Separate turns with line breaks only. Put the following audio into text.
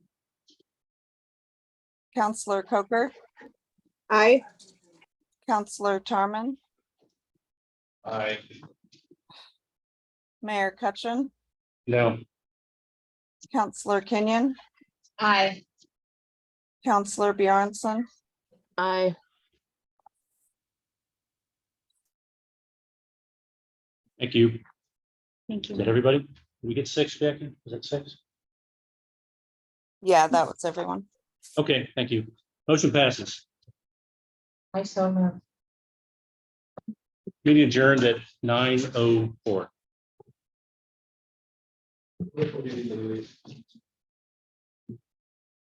Counselor Coker,
Aye.
Counselor Tarman,
Aye.
Mayor Cutchin,
No.
Counselor Kenyon,
Aye.
Counselor Bjornson,
Aye.
Thank you.
Thank
Is that everybody? Did we get six, Jackie? Was that six?
yeah, that was everyone.
Okay, thank you. Motion passes.
I so moved.
Meeting adjourned at nine oh four.